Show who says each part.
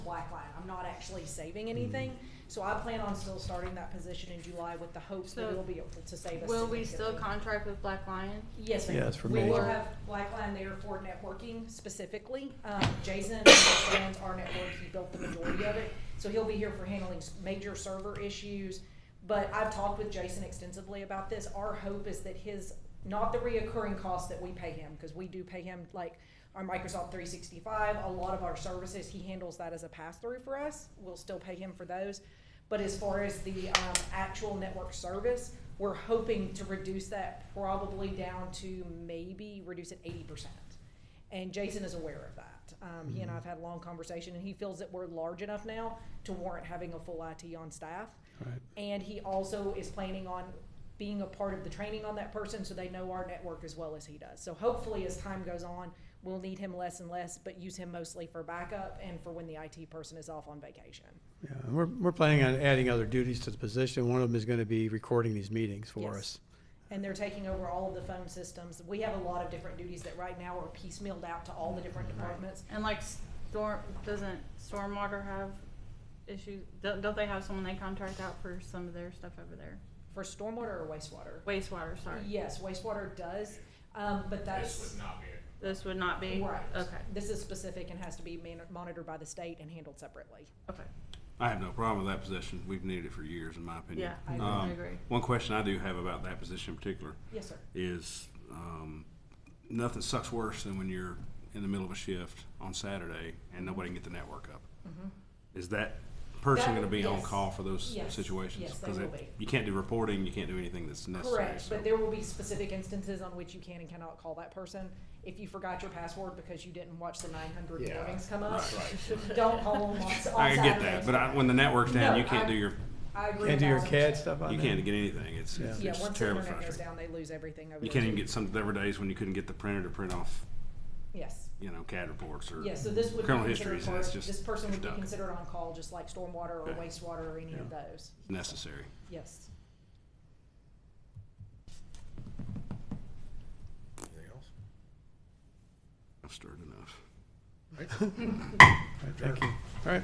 Speaker 1: black line. I'm not actually saving anything. So I plan on still starting that position in July with the hopes that
Speaker 2: So
Speaker 1: it'll be able to save us.
Speaker 2: Will we still
Speaker 1: significantly.
Speaker 2: contract with Black Lion?
Speaker 1: Yes, ma'am.
Speaker 3: Yes, for
Speaker 1: We will
Speaker 2: me.
Speaker 1: have Blackline there for networking specifically. Um, Jason understands our network, he built the majority of it, so he'll be here for handling s- major server issues. But I've talked with Jason extensively about this. Our hope is that his, not the reoccurring costs that we pay him, because we do pay him like our Microsoft three sixty-five, a lot of our services, he handles that as a pass-through for us. We'll still pay him for those. But as far as the um, actual network service, we're hoping to reduce that probably down to maybe reduce it eighty percent. And Jason is aware of that. Um, He and I have had a long conversation, and he feels that we're large enough now to warrant having a full IT on staff.
Speaker 3: Right.
Speaker 1: And he also is planning on being a part of the training on that person, so they know our network as well as he does. So hopefully, as time goes on, we'll need him less and less, but use him mostly for backup and for when the IT person is off on vacation.
Speaker 3: Yeah, and we're, we're planning on adding other duties to the position. One of them is going to be recording these meetings for
Speaker 1: Yes.
Speaker 3: us.
Speaker 1: and they're taking over all of the phone systems. We have a lot of different duties that right now are piecemealed out to all the different
Speaker 2: Mm-hmm.
Speaker 1: departments.
Speaker 2: And like storm, doesn't stormwater have issues? Don't, don't they have someone they contract out for some of their stuff over there?
Speaker 1: For stormwater or wastewater?
Speaker 2: Wastewater, sorry.
Speaker 1: Yes, wastewater does, um,
Speaker 4: This
Speaker 1: but that's,
Speaker 4: would not be a,
Speaker 2: This would not be?
Speaker 1: right.
Speaker 2: Okay,
Speaker 1: This is specific and has to be man- monitored by the state and handled separately.
Speaker 2: okay.
Speaker 5: I have no problem with that position. We've needed it for years, in my opinion.
Speaker 2: Yeah, I agree.
Speaker 5: Um,
Speaker 2: I agree.
Speaker 5: One question I do have about that position in particular
Speaker 1: Yes, sir.
Speaker 5: is, um, nothing sucks worse than when you're in the middle of a shift on Saturday and nobody can get the network up. Is that person
Speaker 1: Mm-hmm. That-
Speaker 5: gonna be on
Speaker 1: yes.
Speaker 5: call for those
Speaker 1: Yes.
Speaker 5: situations?
Speaker 1: Yes, they
Speaker 5: 'Cause
Speaker 1: will
Speaker 5: it-
Speaker 1: be.
Speaker 5: You can't do reporting, you can't do anything that's necessary,
Speaker 1: Correct,
Speaker 5: so.
Speaker 1: but there will be specific instances on which you can and cannot call that person. If you forgot your password because you didn't watch the nine hundred
Speaker 4: Yeah,
Speaker 1: warnings come up,
Speaker 5: right,
Speaker 1: don't call them on on
Speaker 5: I
Speaker 1: Saturday.
Speaker 5: can get that, but I, when the network's down,
Speaker 1: No,
Speaker 5: you can't
Speaker 1: I-
Speaker 5: do your,
Speaker 1: I agree.
Speaker 3: Can't do your
Speaker 1: 1000%.
Speaker 3: CAD stuff on
Speaker 5: you
Speaker 3: there?
Speaker 5: can't get anything. It's, it's
Speaker 1: Yeah,
Speaker 5: it's
Speaker 1: once the
Speaker 5: terribly
Speaker 1: internet goes
Speaker 5: frustrating.
Speaker 1: down, they lose everything over there.
Speaker 5: You can't even
Speaker 1: too.
Speaker 5: get some, there were days when you couldn't get the printer to print off
Speaker 1: Yes.
Speaker 5: you know, CAD reports or.
Speaker 1: Yeah, so this would be
Speaker 5: criminal
Speaker 1: considered
Speaker 5: histories, and
Speaker 1: part,
Speaker 5: it's just
Speaker 1: this person would be
Speaker 5: done.
Speaker 1: considered on call, just like stormwater or
Speaker 5: Okay.
Speaker 1: wastewater or any of
Speaker 3: Yeah.
Speaker 1: those.
Speaker 5: necessary.
Speaker 1: Yes.
Speaker 4: anything else?
Speaker 5: I've stirred enough.
Speaker 3: Right, Thank you.